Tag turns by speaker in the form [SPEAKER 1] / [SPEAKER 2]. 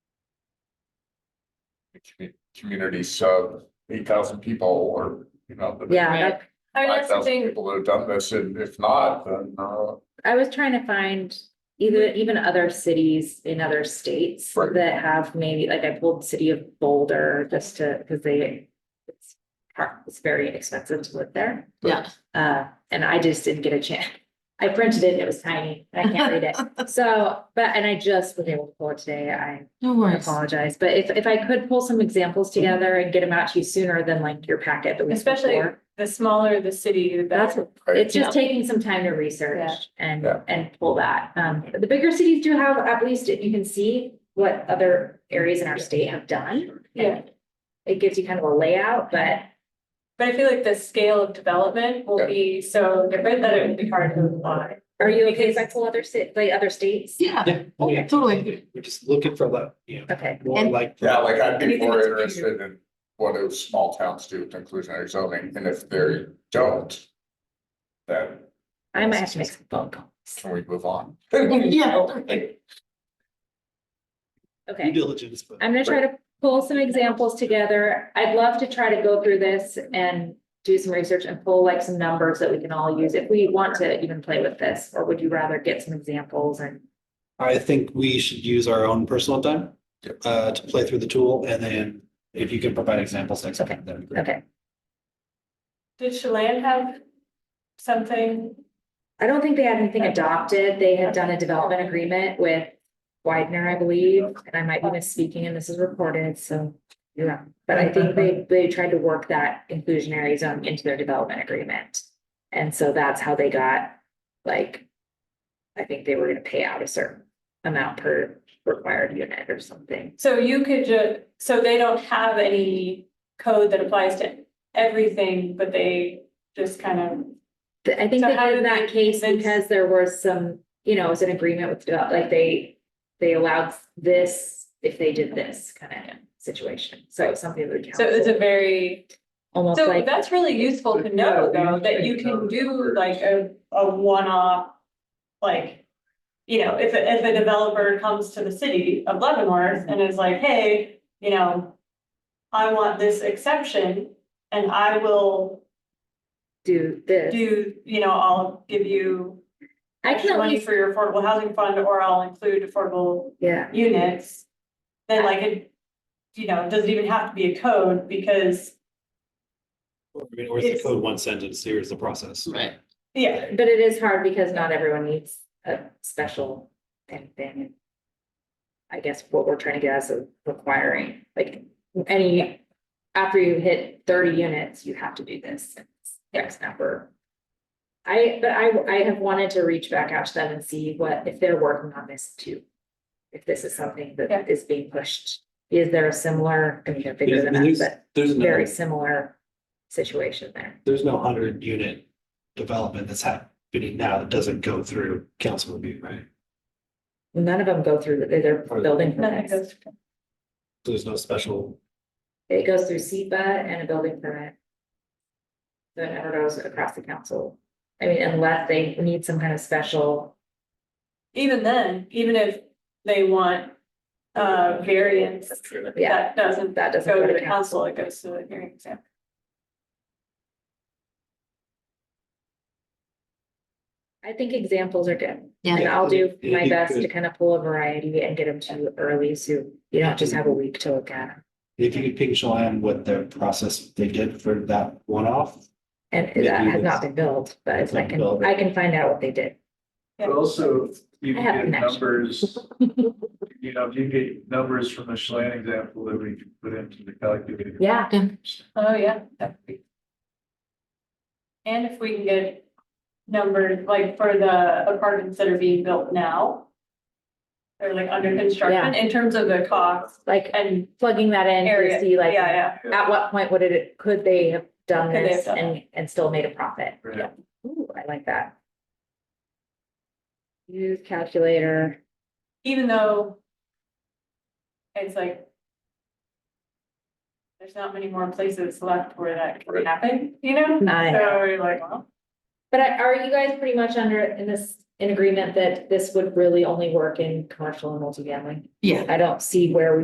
[SPEAKER 1] commu- community sub eight thousand people or, you know. the
[SPEAKER 2] Yeah,
[SPEAKER 3] Right.
[SPEAKER 2] that-
[SPEAKER 3] I mean,
[SPEAKER 1] Five
[SPEAKER 3] that's the
[SPEAKER 1] thousand
[SPEAKER 3] thing,
[SPEAKER 1] people that have done this, and if not, then, uh,
[SPEAKER 2] I was trying to find either,
[SPEAKER 3] Mm-hmm.
[SPEAKER 2] even other cities in other states
[SPEAKER 1] Right.
[SPEAKER 2] that have maybe, like I pulled city of Boulder just to, because they it's har- it's very expensive to live there.
[SPEAKER 3] yeah,
[SPEAKER 2] Uh, and I just didn't get a chance. I printed it, and it was tiny, I can't read it. So, but, and I just was able to pull it today, I
[SPEAKER 3] no worries,
[SPEAKER 2] apologize, but if, if I could pull some examples together and get them out to you sooner than like your packet the week
[SPEAKER 3] Especially-
[SPEAKER 2] before.
[SPEAKER 3] the smaller the city, the
[SPEAKER 2] That's,
[SPEAKER 3] better.
[SPEAKER 2] it's
[SPEAKER 3] Yeah.
[SPEAKER 2] just taking some time to research and,
[SPEAKER 1] Yeah.
[SPEAKER 2] and pull that. Um, the bigger cities do have, at least if you can see what other areas in our state have done.
[SPEAKER 3] Yeah.
[SPEAKER 2] It gives you kind of a layout, but
[SPEAKER 3] But I feel like the scale of development will
[SPEAKER 1] Yeah.
[SPEAKER 3] be so different that it will be hard to apply.
[SPEAKER 2] are you okay if I pull other ci- like other states?
[SPEAKER 3] Yeah,
[SPEAKER 4] Yeah,
[SPEAKER 3] Oh,
[SPEAKER 4] yeah,
[SPEAKER 3] totally.
[SPEAKER 4] We're just looking for that, you know,
[SPEAKER 2] Okay,
[SPEAKER 4] more
[SPEAKER 3] And-
[SPEAKER 4] like.
[SPEAKER 1] yeah, like I'd be
[SPEAKER 3] Anything
[SPEAKER 1] more
[SPEAKER 3] that's
[SPEAKER 1] interested in what do small towns do with inclusionary zoning, and if they don't. Then
[SPEAKER 2] I might have to make some phone calls.
[SPEAKER 1] can we move on?
[SPEAKER 3] Yeah.
[SPEAKER 4] Due
[SPEAKER 2] Okay,
[SPEAKER 4] diligence, but.
[SPEAKER 2] I'm gonna try to pull some examples together. I'd love to try to go through this and do some research and pull like some numbers that we can all use if we want to even play with this, or would you rather get some examples and?
[SPEAKER 4] I think we should use our own personal time
[SPEAKER 1] Yep.
[SPEAKER 4] uh to play through the tool and then if you can provide examples next time, that'd be great.
[SPEAKER 2] Okay,
[SPEAKER 3] Did Chelan have something?
[SPEAKER 2] I don't think they had anything adopted. They had done a development agreement with Widener, I believe, and I might be misspeaking and this is recorded, so. Yeah, but I think they, they tried to work that inclusionary zone into their development agreement. And so that's how they got, like, I think they were gonna pay out a certain amount per required unit or something.
[SPEAKER 3] So you could ju, so they don't have any code that applies to everything, but they just kind of.
[SPEAKER 2] Th- I think
[SPEAKER 3] So
[SPEAKER 2] they
[SPEAKER 3] how
[SPEAKER 2] did
[SPEAKER 3] did
[SPEAKER 2] that case
[SPEAKER 3] convince-
[SPEAKER 2] because there was some, you know, it was an agreement with, the- like, they, they allowed this if they did this kind of situation. So it's something that the
[SPEAKER 3] So it's a
[SPEAKER 2] council,
[SPEAKER 3] very,
[SPEAKER 2] almost
[SPEAKER 3] so
[SPEAKER 2] like,
[SPEAKER 3] that's really useful to know though, that you can do like a, a one-off, like, you know, if, a- if a developer comes to the city of Leavenworth and is like, hey, you know, I want this exception and I will
[SPEAKER 2] do this.
[SPEAKER 3] do, you know, I'll give you
[SPEAKER 2] I can at
[SPEAKER 3] money
[SPEAKER 2] least,
[SPEAKER 3] for your affordable housing fund or I'll include affordable
[SPEAKER 2] yeah,
[SPEAKER 3] units, then like it, you know, it doesn't even have to be a code because,
[SPEAKER 4] Or I mean, or is the
[SPEAKER 3] It's-
[SPEAKER 4] code one sentence, here's the process.
[SPEAKER 5] Right.
[SPEAKER 3] yeah,
[SPEAKER 2] but it is hard because not everyone needs a special thing, thing. I guess what we're trying to get as a requiring, like, any, after you hit thirty units, you have to do this. It's X number. I, but I, I have wanted to reach back out to them and see what, if they're working on this too. If this is something
[SPEAKER 3] Yeah.
[SPEAKER 2] that is being pushed, is there a similar, I mean, they're bigger
[SPEAKER 4] There's-
[SPEAKER 2] than
[SPEAKER 4] I mean,
[SPEAKER 2] us, but
[SPEAKER 4] There's no,
[SPEAKER 2] very similar situation there.
[SPEAKER 4] there's no hundred unit development that's happening now that doesn't go through council review, right?
[SPEAKER 2] None of them go through, they're, they're building
[SPEAKER 3] nothing
[SPEAKER 2] permits.
[SPEAKER 3] goes.
[SPEAKER 4] So There's no special,
[SPEAKER 2] It goes through SEPA and a building permit. So it never goes across the council. I mean, unless they need some kind of special,
[SPEAKER 3] Even then, even if they want, uh, variance,
[SPEAKER 2] yeah,
[SPEAKER 3] that doesn't
[SPEAKER 2] that doesn't
[SPEAKER 3] go to the
[SPEAKER 2] council.
[SPEAKER 3] council, it goes to the hearing exam.
[SPEAKER 2] I think examples are good.
[SPEAKER 5] Yeah.
[SPEAKER 2] And I'll do
[SPEAKER 4] It'd
[SPEAKER 2] my
[SPEAKER 4] be
[SPEAKER 2] best to
[SPEAKER 4] good.
[SPEAKER 2] kind of pull a variety and get them to you early, so you don't just have a week to look at. 'em.
[SPEAKER 4] if you could ping Chelan what their process they did for that one off,
[SPEAKER 2] And
[SPEAKER 4] Maybe
[SPEAKER 2] that has
[SPEAKER 4] it's-
[SPEAKER 2] not been built, but
[SPEAKER 4] it's
[SPEAKER 2] I
[SPEAKER 4] not
[SPEAKER 2] can,
[SPEAKER 4] built.
[SPEAKER 2] I can find out what they did.
[SPEAKER 3] Yeah.
[SPEAKER 6] But also, you
[SPEAKER 2] I have
[SPEAKER 6] can get
[SPEAKER 2] connections.
[SPEAKER 6] numbers. You know, if you get numbers from the Chelan example that we can put into the calculator.
[SPEAKER 2] Yeah,
[SPEAKER 3] Oh, yeah. that would be- And if we can get numbers, like for the apartments that are being built now, they're like under construction in terms of the cost
[SPEAKER 2] like
[SPEAKER 3] and
[SPEAKER 2] plugging that in to
[SPEAKER 3] area,
[SPEAKER 2] see
[SPEAKER 3] yeah,
[SPEAKER 2] like
[SPEAKER 3] yeah.
[SPEAKER 2] at what point would it, could they have done
[SPEAKER 3] Could they have
[SPEAKER 2] this
[SPEAKER 3] done
[SPEAKER 2] and, and still made a profit?
[SPEAKER 6] Right.
[SPEAKER 2] Yeah. Ooh, I like that. Use calculator,
[SPEAKER 3] even though it's like there's not many more places left where that can
[SPEAKER 1] Right.
[SPEAKER 3] happen, you know?
[SPEAKER 2] I
[SPEAKER 3] So you're like, well,
[SPEAKER 2] but I- are you guys pretty much under, in this, in agreement that this would really only work in commercial and multifamily?
[SPEAKER 5] Yeah.
[SPEAKER 2] I don't see where we